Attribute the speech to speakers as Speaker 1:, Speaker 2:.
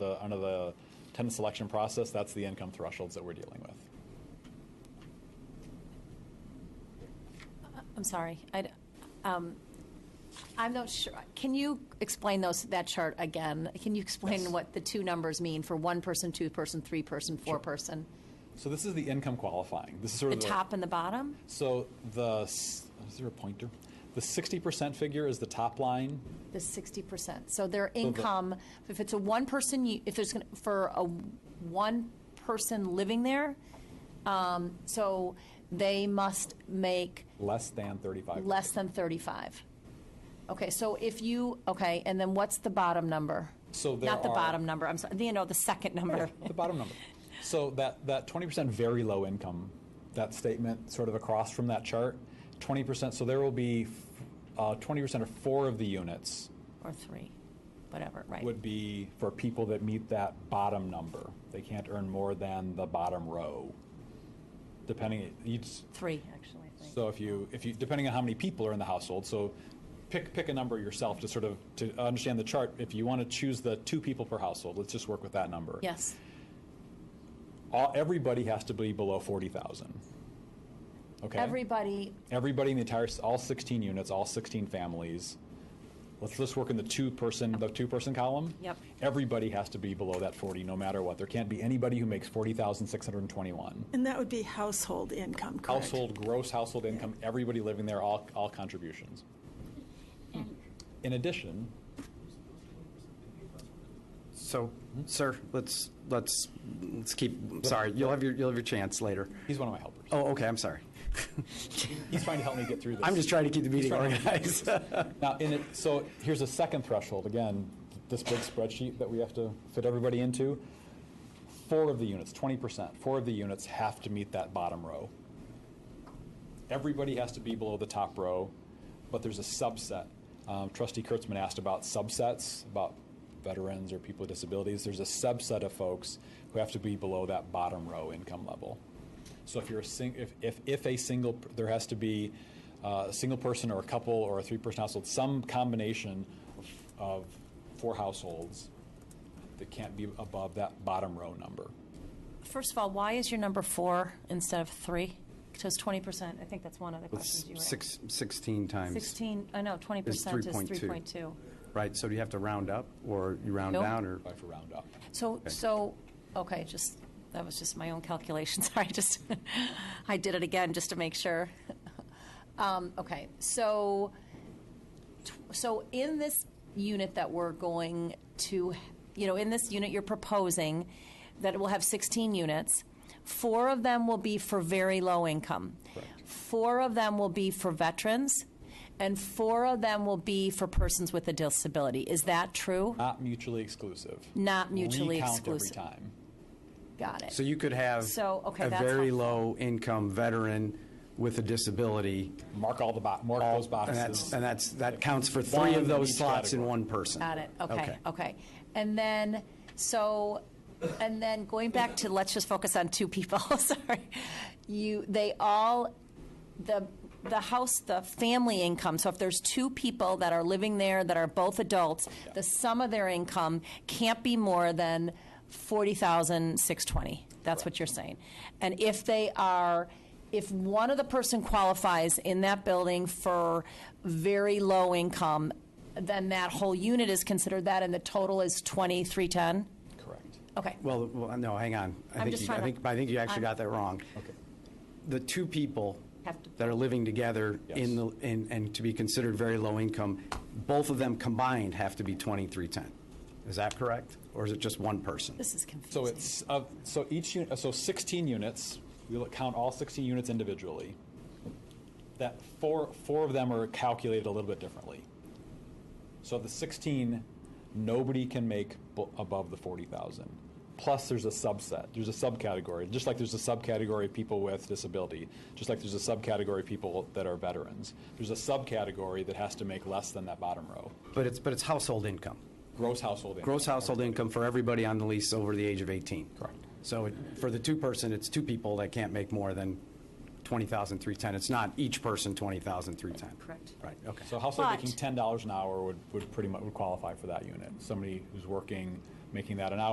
Speaker 1: the under the tenant selection process, that's the income thresholds that we're dealing with.
Speaker 2: I'm sorry, I, d- um, I'm not sure, can you explain those, that chart again? Can you
Speaker 1: Yes.
Speaker 2: explain what the two numbers mean for one person, two person, three person, four person?
Speaker 1: So this is the income qualifying. This is sort
Speaker 2: The
Speaker 1: of
Speaker 2: top and the bottom?
Speaker 1: So the s- is there a pointer? The sixty percent figure is the top line.
Speaker 2: The 60%. So their income, if it's a one person, you- if there's, gonna- for a one person living there, um, so they must make
Speaker 1: Less than thirty-five.
Speaker 2: less than 35. Okay, so if you, okay, and then what's the bottom number?
Speaker 1: So there
Speaker 2: Not the
Speaker 1: are-
Speaker 2: bottom number, I'm sorry, you know, the second number.
Speaker 1: the bottom number. So that that twenty percent very low income, that statement sort of across from that chart, twenty percent. So there will be uh, twenty percent or four of the units
Speaker 2: Or three, whatever, right.
Speaker 1: would be for people that meet that bottom number. They can't earn more than the bottom row. Depending each
Speaker 2: Three, actually, I think.
Speaker 1: So if you, if you, depending on how many people are in the household, so pick, pick a number yourself to sort of, to understand the chart. If you want to choose the two people per household, let's just work with that number.
Speaker 2: Yes,
Speaker 1: All, everybody has to be below forty thousand. Okay?
Speaker 2: everybody,
Speaker 1: Everybody in the entire, all sixteen units, all sixteen families. Let's just work in the two-person, the two-person column.
Speaker 2: Yep.
Speaker 1: Everybody has to be below that forty, no matter what. There can't be anybody who makes forty thousand six hundred and twenty-one.
Speaker 3: And that would be household income, correct?
Speaker 1: Household, gross household income, everybody living there, all, all contributions. In addition,
Speaker 4: So, sir, let's, let's, let's keep, sorry, you'll have your, you'll have your chance later.
Speaker 1: he's one of my helpers.
Speaker 4: Oh, okay, I'm sorry.
Speaker 1: He's trying to help me get through this.
Speaker 4: I'm just trying to keep the
Speaker 1: He's
Speaker 4: meeting
Speaker 1: trying to help me
Speaker 4: organized.
Speaker 1: Now, in it, so here's a second threshold, again, this big spreadsheet that we have to fit everybody into. Four of the units, twenty percent, four of the units have to meet that bottom row. Everybody has to be below the top row, but there's a subset. Um, Trustee Kurtzman asked about subsets, about veterans or people with disabilities. There's a subset of folks who have to be below that bottom row income level. So if you're a sing, if, if, if a single, p- there has to be uh, a single person or a couple or a three-person household, some combination of four households that can't be above that bottom row number.
Speaker 2: first of all, why is your number four instead of three? So it's 20%, I think that's one of the questions you were.
Speaker 4: Six, 16 times,
Speaker 2: 16, I know, 20% is
Speaker 4: 3.2.
Speaker 2: 3.2.
Speaker 4: right? So do you have to round up, or you round
Speaker 2: Nope.
Speaker 4: down, or?
Speaker 1: Try for round up.
Speaker 2: So, so, okay, just, that was just my own calculation, sorry, just, I did it again just to make sure. Um, okay, so, tw- so in this unit that we're going to, you know, in this unit you're proposing, that it will have 16 units, four of them will be for very low income. Four of them will be for veterans, and four of them will be for persons with a disability. Is that true?
Speaker 1: Not mutually exclusive.
Speaker 2: Not mutually exclusive.
Speaker 1: Recount every time.
Speaker 2: Got it.
Speaker 4: So you could have
Speaker 2: So, okay,
Speaker 4: a
Speaker 2: that's
Speaker 4: very
Speaker 2: helpful.
Speaker 4: low-income veteran with a disability.
Speaker 1: Mark all the bo, mark those
Speaker 4: And
Speaker 1: boxes.
Speaker 4: that's, and that's, that counts for
Speaker 1: One
Speaker 4: three
Speaker 1: in
Speaker 4: of
Speaker 1: each
Speaker 4: those slots in
Speaker 1: category.
Speaker 4: one person.
Speaker 2: Got it, okay, okay. And then, so, and then going back to, let's just focus on two people, sorry. You, they all, the, the house, the family income, so if there's two people that are living there that are both adults, the sum of their income can't be more than forty thousand six twenty. That's what you're saying. And if they are, if one of the person qualifies in that building for very low income, then that whole unit is considered that, and the total is twenty-three ten?
Speaker 1: Correct.
Speaker 2: Okay.
Speaker 4: Well, well, no, hang on. I
Speaker 2: I'm
Speaker 4: think
Speaker 2: just
Speaker 4: you-
Speaker 2: trying
Speaker 4: I
Speaker 2: to-
Speaker 4: think, I think you actually
Speaker 2: I'm-
Speaker 4: got that wrong.
Speaker 1: Okay.
Speaker 4: The two people
Speaker 2: Have to-
Speaker 4: that are living together
Speaker 1: Yes.
Speaker 4: in the, in- and to be considered very low income, both of them combined have to be 2310. Is that correct? Or is it just one person?
Speaker 2: This is
Speaker 1: So
Speaker 2: confusing.
Speaker 1: it's, of- so each, uni- so 16 units, we will count all 16 units individually. That, four, four of them are calculated a little bit differently. So of the 16, nobody can make bu- above the 40,000. Plus, there's a subset, there's a subcategory, just like there's a subcategory of people with disability, just like there's a subcategory of people that are veterans. There's a subcategory that has to make less than that bottom row,
Speaker 4: But it's, but it's household income.
Speaker 1: gross household income.
Speaker 4: Gross household income for everybody on the lease over the age of 18.
Speaker 1: Correct.
Speaker 4: So it- for the two-person, it's two people that can't make more than 20,310. It's not each person 20,310.
Speaker 2: Correct.
Speaker 4: Right, okay.
Speaker 1: So a household
Speaker 2: But-
Speaker 1: making ten dollars an hour would, would pretty much, would qualify for that unit. Somebody who's working, making that an hour